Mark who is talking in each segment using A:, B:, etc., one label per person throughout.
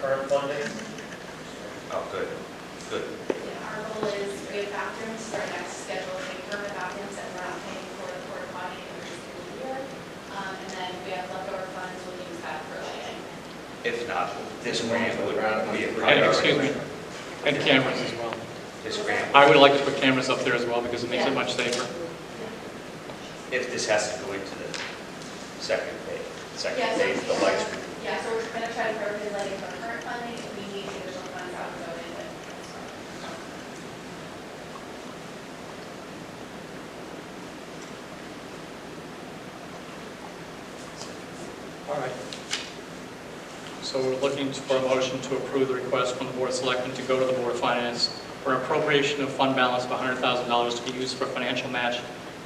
A: current funding?
B: Oh, good, good.
C: Our goal is we have bathrooms for our next scheduled pay permit bathrooms that we're not paying for the porta potty in the school year. Um, and then we have leftover funds, we'll use that for lighting.
B: If not, this grant would be a
D: And
B: priority.
D: excuse me, and cameras as well.
B: This grant,
D: I would like to put cameras up there as well because it makes it much safer.
B: if this has to go into the second phase,
C: Yeah,
B: second
C: so-
B: phase, the lights. would-
C: Yeah, so we're gonna try to appropriate lighting for current funding, if we need additional funds out of it.
D: All right. So we're looking for a motion to approve the request from the Board of Selectmen to go to the Board of Finance for appropriation of fund balance of $100,000 to be used for financial match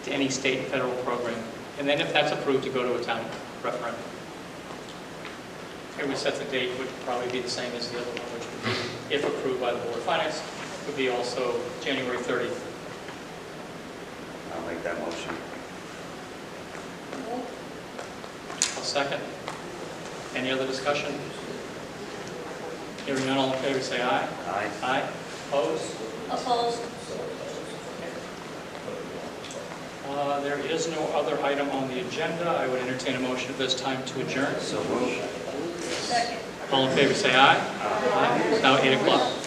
D: to any state and federal program. And then if that's approved, to go to a town referendum. It would set the date, would probably be the same as the other one, which would be, if approved by the Board of Finance, would be also January 30th.
B: I'll make that motion.
D: I'll second. Any other discussion? Hearing none, all in favor, say aye.
B: Aye.
D: Aye. Opposed?
E: Opposed?
D: Uh, There is no other item on the agenda. I would entertain a motion at this time to adjourn.
B: So move.
E: Second.
D: All in favor, say aye. Aye. It's now 8 o'clock.